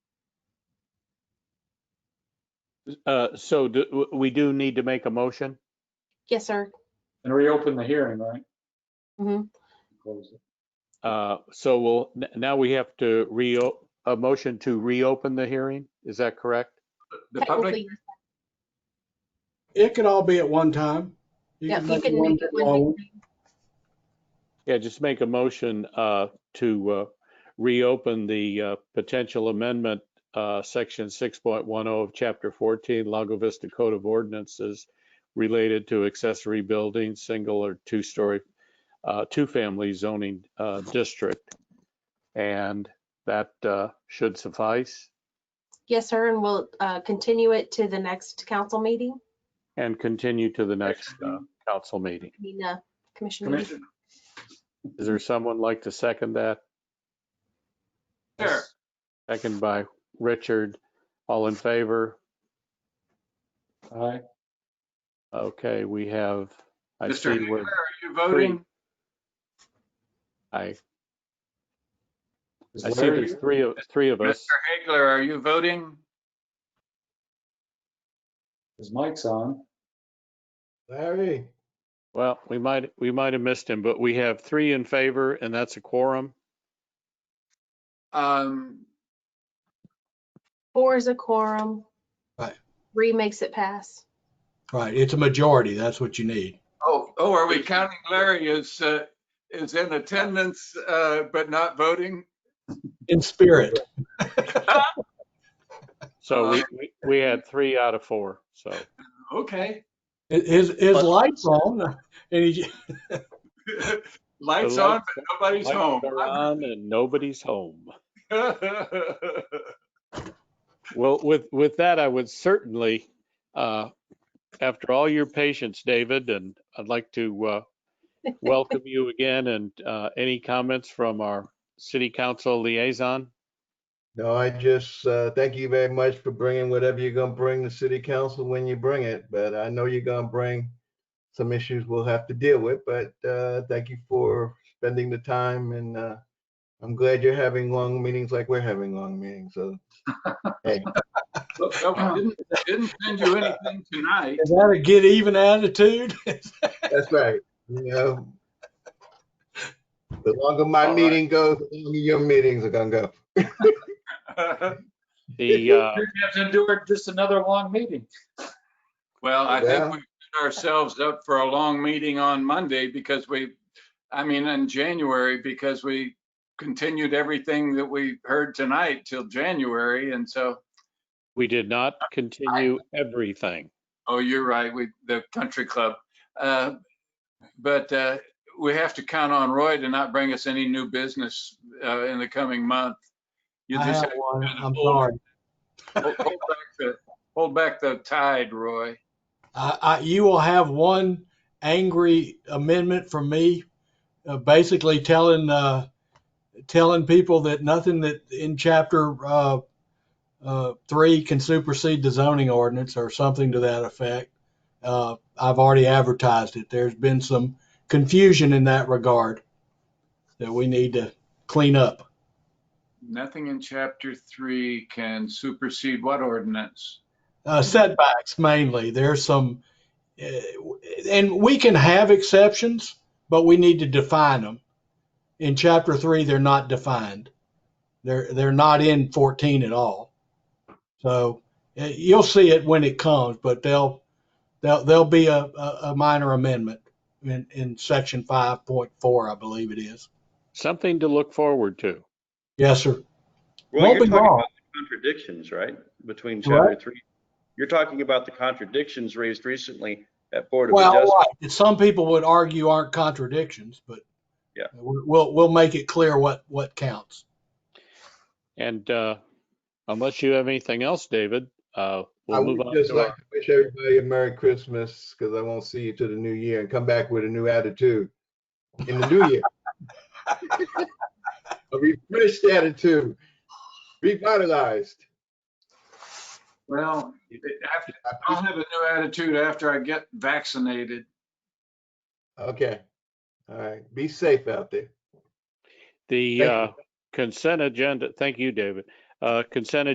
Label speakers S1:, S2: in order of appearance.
S1: Uh, so do- w- we do need to make a motion?
S2: Yes, sir.
S3: And reopen the hearing, right?
S2: Mhm.
S3: Close it.
S1: Uh, so we'll, n- now we have to reo, a motion to reopen the hearing? Is that correct?
S4: The public,
S2: Technically,
S5: It could all be at one time.
S2: yeah,
S5: could
S2: you can
S5: one
S2: make it one
S5: big long-
S2: big thing.
S1: Yeah, just make a motion, uh, to, uh, reopen the, uh, potential amendment, uh, section six point one oh of chapter fourteen, Lago Vista Code of Ordinances related to accessory buildings, single or two-story, uh, two-family zoning, uh, district. And that, uh, should suffice
S2: Yes, sir, and we'll uh, continue it to the next council meeting,
S1: and continue to the next, uh, council meeting.
S2: I mean, uh, commission meeting.
S3: Commissioner,
S1: Is there someone like to second that?
S4: sure.
S1: Second by Richard. All in favor?
S3: aye.
S1: Okay, we have, I
S4: Mr.
S1: see
S4: Hager,
S1: where,
S4: are you voting?
S1: I,
S3: Is
S1: I see
S3: Larry-
S1: there's three of, three of
S4: Mr.
S1: us.
S4: Hagler, are you voting?
S3: His mic's on.
S5: Larry,
S1: Well, we might, we might have missed him, but we have three in favor and that's a quorum.
S4: Um,
S2: Four is a quorum.
S5: Right.
S2: Three makes it pass.
S5: right, it's a majority. That's what you need.
S4: oh, oh, are we counting Larry as, uh, is in attendance, uh, but not voting?
S5: In spirit.
S1: So
S4: Uh-huh.
S1: we, we- we had three out of four, so.
S4: Okay.
S5: His, his
S1: But-
S5: lights on and he,
S4: Lights
S1: The
S4: on,
S1: lights-
S4: but nobody's
S1: Lights
S4: home.
S1: are on and nobody's home. Well, with, with that, I would certainly, uh, after all your patience, David, and I'd like to, uh, welcome you again and, uh, any comments from our city council liaison?
S6: No, I just, uh, thank you very much for bringing whatever you're gonna bring to city council when you bring it, but I know you're gonna bring some issues we'll have to deal with, but, uh, thank you for spending the time and, uh, I'm glad you're having long meetings like we're having long meetings, so. hey,
S4: Look, no, we Didn't didn't send you anything tonight.
S5: is that a get even attitude?
S6: That's right, you know. The longer
S1: All
S6: my
S1: right.
S6: meeting goes, the longer your meetings are gonna go.
S1: The, uh,
S3: You have to endure just another long meeting.
S4: Well, I
S6: Yeah.
S4: think we set ourselves up for a long meeting on Monday because we, I mean, in January, because we continued everything that we heard tonight till January. And so,
S1: we did not continue everything.
S4: oh, you're right, we, the country club. Uh, But uh, we have to count on Roy to not bring us any new business uh, in the coming month. You
S5: I
S4: just
S5: have one. I'm
S4: hold-
S5: sorry.
S4: hold hold back the- hold back the tide, Roy.
S5: I, I, you will have one angry amendment from me, uh, basically telling uh, telling people that nothing that in chapter uh, uh, three can supersede the zoning ordinance or something to that effect. Uh, I've already advertised it. There's been some confusion in that regard that we need to clean up.
S4: Nothing in chapter three can supersede what ordinance?
S5: Uh, setbacks mainly. There's some, uh, and we can have exceptions, but we need to define them. In chapter three, they're not defined. They're they're not in 14 at all. So uh, you'll see it when it comes, but they'll they'll there'll be a, a, a minor amendment in, in section 5.4, I believe it is.
S1: Something to look forward to.
S5: Yes, sir.
S7: Roy,
S5: Won't
S7: you're
S5: be
S7: talking
S5: long.
S7: about the contradictions, right, between chapter three? You're talking about the contradictions raised recently at Board of
S5: Well,
S7: Adjustment.
S5: right. And some people would argue aren't contradictions, but
S7: Yeah.
S5: we- we'll we'll make it clear what what counts.
S1: And, uh, unless you have anything else, David, uh,
S6: I
S1: we'll move
S6: would
S1: on
S6: just
S1: to
S6: like
S1: our,
S6: to wish everybody a Merry Christmas, because I won't see you to the new year and come back with a new attitude in the new year. A refreshed attitude, revitalized.
S4: Well, after, I'll have a new attitude after I get vaccinated.
S6: Okay, all right, be safe out there.
S1: the,
S6: Thank you.
S1: uh, consent agenda. Thank you, David. Uh, consent